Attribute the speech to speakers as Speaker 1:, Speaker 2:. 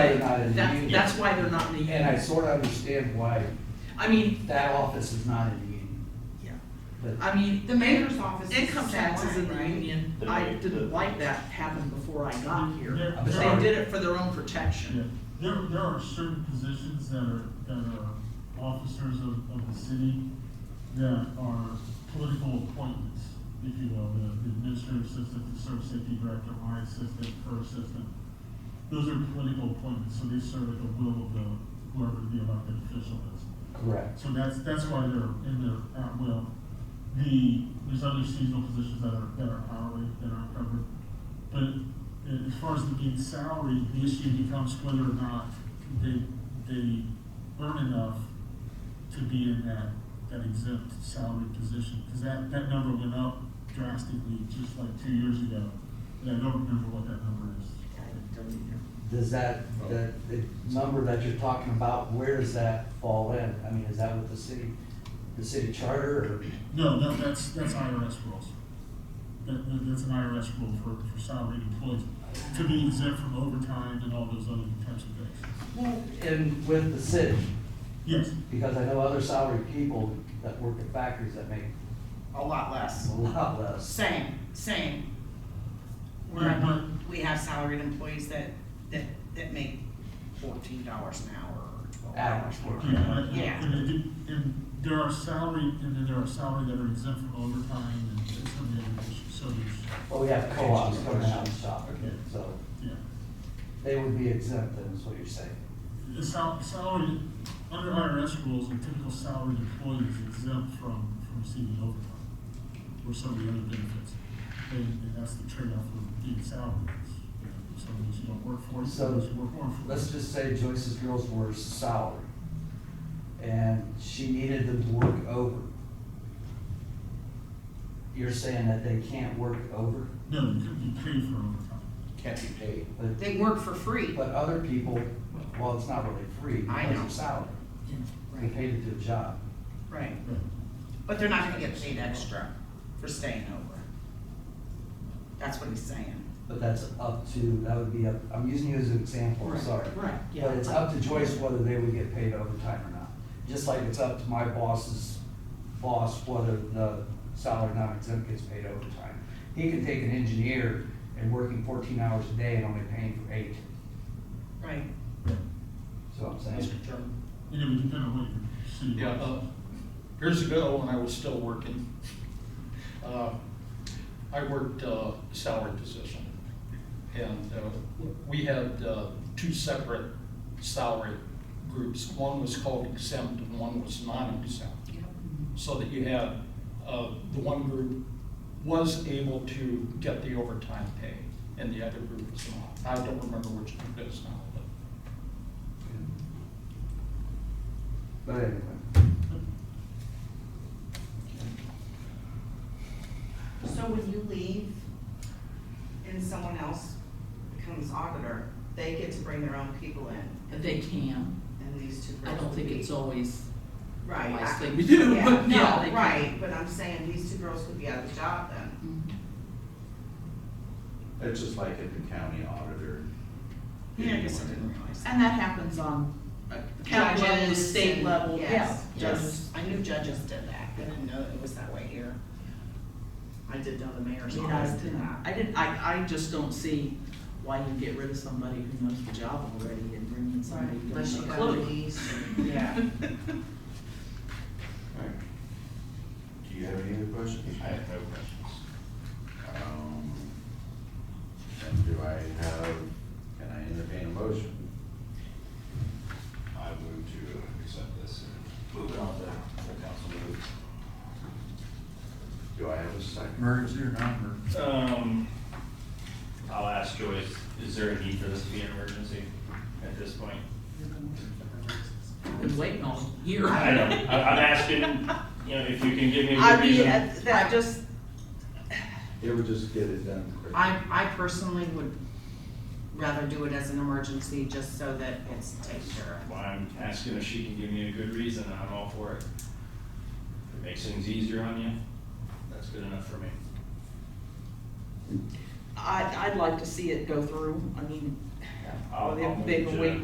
Speaker 1: not in the
Speaker 2: That,
Speaker 1: union.
Speaker 2: that's why they're not in the
Speaker 1: And I
Speaker 2: union.
Speaker 1: sort of understand why
Speaker 2: I mean,
Speaker 1: that office is not in the union,
Speaker 2: yeah,
Speaker 1: but
Speaker 2: I mean,
Speaker 3: The mayor's office is.
Speaker 2: income
Speaker 3: the
Speaker 2: taxes
Speaker 3: same
Speaker 2: in the
Speaker 3: way, right?
Speaker 2: union,
Speaker 4: The
Speaker 2: I
Speaker 4: mayor- the-
Speaker 2: didn't like that happen before I got here.
Speaker 5: Yeah.
Speaker 2: But they did it for their own
Speaker 5: Yeah,
Speaker 2: protection.
Speaker 5: there, there are certain positions that are, that are officers of, of the city that are political appointments, if you will, the the administrative assistant, the service safety director, my assistant, her assistant. Those are political appointments, so they serve at the will of the, whoever the elected official is.
Speaker 1: correct.
Speaker 5: So that's, that's why they're in there at will. The, there's other seasonal positions that are, that are hourly, that aren't covered. But a- as far as the being salary, the issue becomes whether or not they, they earn enough to be in that, that exempt salary position. Cause that, that number went up drastically just like two years ago. And I don't remember what that number is.
Speaker 1: Does that, that, the number that you're talking about, where does that fall in? I mean, is that with the city, the city charter or?
Speaker 5: No, no, that's, that's IRS rules. That, that- that's an IRS rule for, for salaried employees, to be exempt from overtime and all those other types of things.
Speaker 1: And with the city,
Speaker 5: Yes,
Speaker 1: because I know other salary people that work at factories that make
Speaker 3: A lot less.
Speaker 1: a lot less.
Speaker 3: Same, same.
Speaker 5: Yeah, but-
Speaker 3: We're, we have salaried employees that, that, that make fourteen dollars an hour or twelve dollars
Speaker 1: Average
Speaker 3: an hour.
Speaker 1: worker.
Speaker 5: yeah, I-
Speaker 3: Yeah.
Speaker 5: and, it- and there are salary, and then there are salary that are exempt from overtime and some of the other issues, so there's,
Speaker 1: Well, Oh, we have co-ops coming out and shopping, so
Speaker 5: yeah.
Speaker 1: they would be exempt then, is what you're saying.
Speaker 5: The sal- salary, under IRS rules, a typical salaried employee is exempt from, from receiving overtime or some of the other benefits. And, and that's the trade-off of being salaried. You know, Some of those you don't work for, some of those you work more for.
Speaker 1: Let's just say Joyce's girls were salary, and she needed them to work over. You're saying that they can't work over,
Speaker 5: No, you couldn't be paid for overtime.
Speaker 6: Can't be paid.
Speaker 1: but,
Speaker 3: They work for free.
Speaker 1: but other people, well, it's not really free,
Speaker 3: I
Speaker 1: because
Speaker 3: know.
Speaker 1: they're salary. They
Speaker 3: Right,
Speaker 1: paid to do a job.
Speaker 3: right.
Speaker 5: Right.
Speaker 3: But they're not gonna get paid extra for staying over. That's what he's saying.
Speaker 1: But that's up to, that would be up, I'm using you as an example, I'm
Speaker 3: Right,
Speaker 1: sorry.
Speaker 3: right,
Speaker 1: But it's up to Joyce whether they would get paid overtime or not. Just like it's up to my boss's boss whether the salary non-exempt gets paid overtime. He can take an engineer and working fourteen hours a day and only paying for eight,
Speaker 3: Right.
Speaker 1: so I'm saying.
Speaker 6: Mr. Chairman?
Speaker 5: And it would depend on what your city.
Speaker 6: Yeah, uh, years ago, when I was still working, uh, I worked uh, a salary position. And uh, we had uh, two separate salary groups. One was called exempt and one was non-exempt. so that you had, uh, the one group was able to get the overtime pay and the other group was not. I don't remember which group it is now, but
Speaker 1: But anyway,
Speaker 3: So when you leave and someone else becomes auditor, they get to bring their own people in
Speaker 7: They can.
Speaker 3: and these two
Speaker 7: I
Speaker 3: girls
Speaker 7: don't
Speaker 3: will
Speaker 7: think
Speaker 3: be-
Speaker 7: it's always the
Speaker 3: Right.
Speaker 7: wise
Speaker 3: I-
Speaker 7: thing to do,
Speaker 3: Yeah,
Speaker 7: but yeah, they can.
Speaker 3: no, right, but I'm saying these two girls could be out of a job then.
Speaker 7: Mhm.
Speaker 8: It's just like if the county auditor.
Speaker 3: Yeah, I guess I didn't realize.
Speaker 2: And that happens on uh, county level,
Speaker 3: Judges
Speaker 2: state
Speaker 3: and-
Speaker 2: level, yeah.
Speaker 3: yes,
Speaker 2: Judges.
Speaker 3: Yes, I knew judges did that, I didn't know it was that way here. I did know the mayor's
Speaker 2: You know, I
Speaker 3: office did
Speaker 2: didn't-
Speaker 3: that.
Speaker 2: I didn't, I, I just don't see why you get rid of somebody who knows the job already and bring in somebody who
Speaker 3: Unless
Speaker 2: doesn't
Speaker 3: you
Speaker 2: have a
Speaker 3: got
Speaker 2: clue.
Speaker 3: these, yeah.
Speaker 8: Alright. Do you have any other questions?
Speaker 6: I have no questions.
Speaker 8: Um, And do I have, can I entertain a motion?
Speaker 9: I move to accept this and move it on to the council move.
Speaker 8: Do I have a second?
Speaker 4: Emergency or non-emergency?
Speaker 9: Um, I'll ask Joyce, is there a need for this to be an emergency at this point?
Speaker 7: Been waiting all year.
Speaker 9: I know, I- I'm asking, you know, if you can give me a good
Speaker 2: I mean,
Speaker 9: reason.
Speaker 2: uh, that just,
Speaker 8: It would just get it done quick.
Speaker 3: I, I personally would rather do it as an emergency, just so that it's taken care of.
Speaker 9: Well, I'm asking if she can give me a good reason, and I'm all for it. If it makes things easier on you, that's good enough for me.
Speaker 2: I, I'd like to see it go through, I mean,
Speaker 9: I'll- I'll
Speaker 2: they've been
Speaker 9: move to-
Speaker 2: waiting